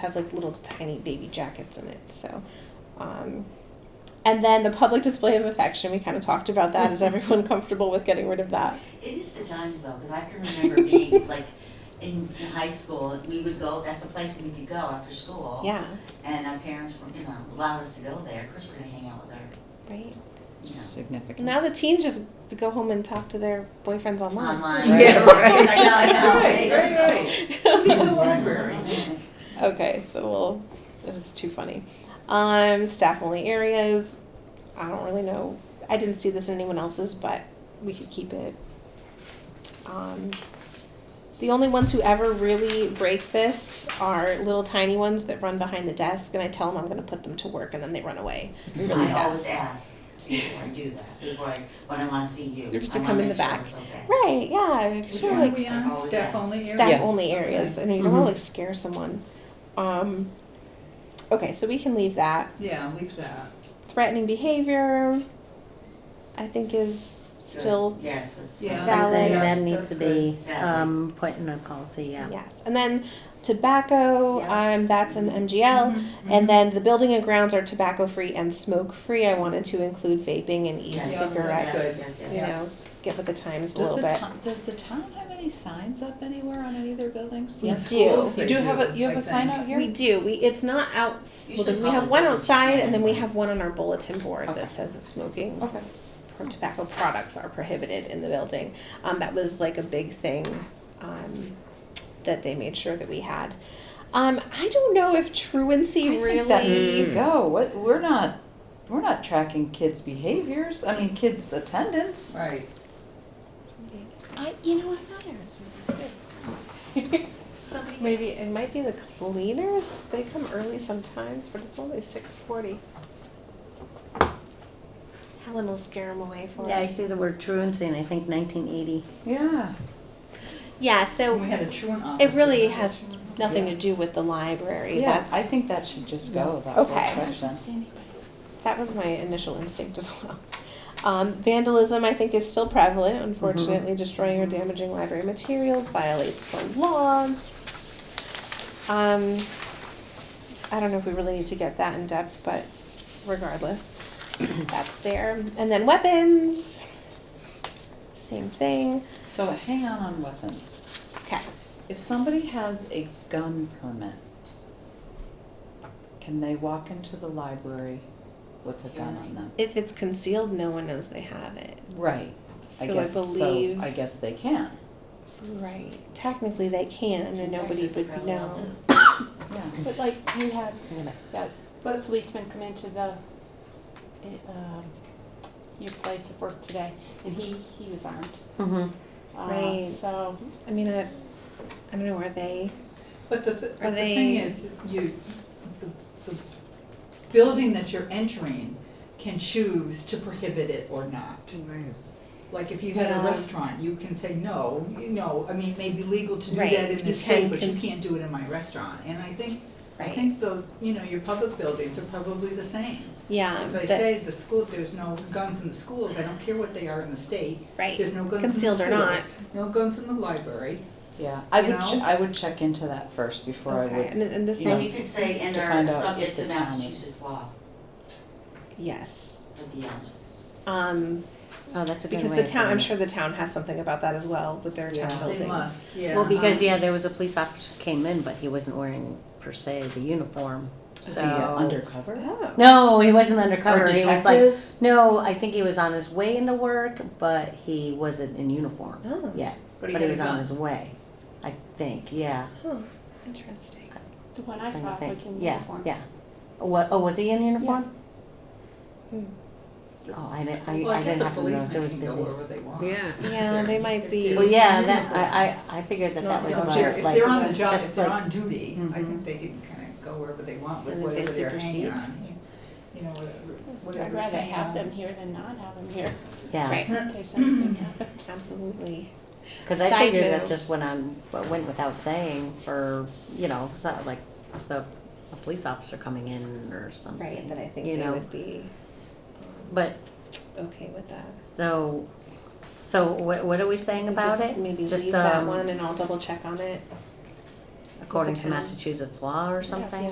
has like little tiny baby jackets in it. So, um, and then the public display of affection. We kind of talked about that. Is everyone comfortable with getting rid of that? It is the times though, because I can remember being like in in high school, we would go, that's the place we could go after school. Yeah. And our parents, were, you know, allowed us to go there, of course we're gonna hang out with our, Right. you know. Significance. Now the teens just go home and talk to their boyfriends online. Online. Yeah, right. I know, I know. Right, right, Needs a library. Okay, so we'll. It is too funny. Um, staff only areas. I don't really know. I didn't see this in anyone else's, but we could keep it. Um, the only ones who ever really break this are little tiny ones that run behind the desk, and I tell them I'm going to put them to work, and then they run away really I fast. always ask before I do that, before I, when I wanna see you. You're just to I wanna come in make the sure back. it's okay. Right? Yeah. Which Sure. one Like we on? Staff only staff Yes. only areas, Mm-hmm. and you don't want to like scare someone. Um, okay, so we can leave that. Yeah, leave that. threatening behavior i think is Good. still Yes, that's. Yeah. Something Valid. that needs to be, Exactly. um, put in a policy, yeah. yes and then tobacco Yeah. um, that's an Mm-hmm. mgl Mm-hmm. and then the building and grounds are tobacco free and smoke free i wanted to include vaping and Yes, Yeah. e-cigarettes yes, yes, you yes. know get with the times a Does the little bit town, does the town have any signs up anywhere on any of their buildings? We Yeah, do. schools, They You do have a, do, you have I a sign think. out here? we do we it's not out You well, should then we have probably one put it outside and then we somewhere. have one on our bulletin board Okay. that says that smoking Okay. or tobacco products are prohibited in the building. Um, that was like a big thing um, that they made sure that we had. Um, I don't know if truancy I really. think that needs Mm. to go. What, we're not, we're not tracking kids' behaviors. I mean, kids' attendance. Right. I, you know, I'm not Arizona. Somebody- Maybe it might be the cleaners. They come early sometimes, but it's only six forty. Helen will scare them away for Yeah, I us. see the word truancy and I think nineteen eighty. Yeah. Yeah, so We had a truant it officer. really has nothing to do with the library. Yeah, That's- I think that should just go, that Okay. whole section. That was my initial instinct as well. Um, vandalism, I think, is still prevalent. Mm-hmm. Unfortunately, destroying or damaging library materials violates the law. Um, I don't know if we really need to get that in depth, but regardless, that's there. And then weapons, same thing. So hang on on weapons. Okay. If somebody has a gun permit, can they walk into the library with a gun on them? If it's concealed, no one knows they have it. Right. I So I, guess so. believe, I guess they can. right. Technically, they can, and In nobody Texas, would probably all know. do. Yeah. But like you had that policeman come into the, uh, um, your place of work today, and he, he was armed. Mm-hmm. Uh, Right. So, I mean, I, I don't know, are they? But the, th- but the they- thing is, you, the, the building that you're entering can choose to prohibit it or not. Like if you had a Yeah. restaurant, you can say, no, you know, I mean, it may be legal to do Right, that you in this can state, but you con- can't do it in my restaurant. And I think, I Right. think the, you know, your public buildings are probably the same. Yeah, If they that- say the school, there's no guns in the schools, I don't care what they are in the state, right. there's no guns in the schools. Concealed or not. No guns in the library. Yeah, I You would, know? che- I would check into that first before I Okay, would. and, and this you know, Well, one, you could say, and to find are out subject if the to town is- Massachusetts law yes. at the end. Um, Oh, that's a good way. because the of town, I'm doing it. sure the town has something about that as well with their town Yeah. They buildings. They must, yeah. Well, because, Um, yeah, there was a police officer came in, but he wasn't wearing per se the uniform, Is so. he uh, undercover? Oh. No, he wasn't undercover, Or he was like, detective? no, I think he was on his way into work, but he wasn't in uniform Oh. yet, But he but had he a was on gun. his way, I think, yeah. Huh. Interesting. the one I trying to saw think. was in Yeah, uniform. Yeah, What, oh, was he in uniform? Hmm. Oh, I didn't, I, Well, I guess didn't the have to notice, it policemen was can busy. go wherever they want. Yeah, they might be. Well, yeah, that, I, I, I figured that No, that it's was not about, fair. like. If they're on the job, just if they're like- Mm-hmm. on duty, I Mhm. think they can kind of go wherever they want with And then they whatever they're supersede. hanging on. You know, whatever, I'd whatever's rather hanging have on. them here than not have them here, Yeah. Right. in case anything happens. Absolutely. Because I Side figured that note. just went on, but went without saying for, you know, it's not like the, a police officer coming in or something. Right. That I think You they know. would be But, okay with that. so, so what, what are we saying about Just it? Maybe Just, leave that um, one, and I'll double check on it. according to town. Massachusetts law or something.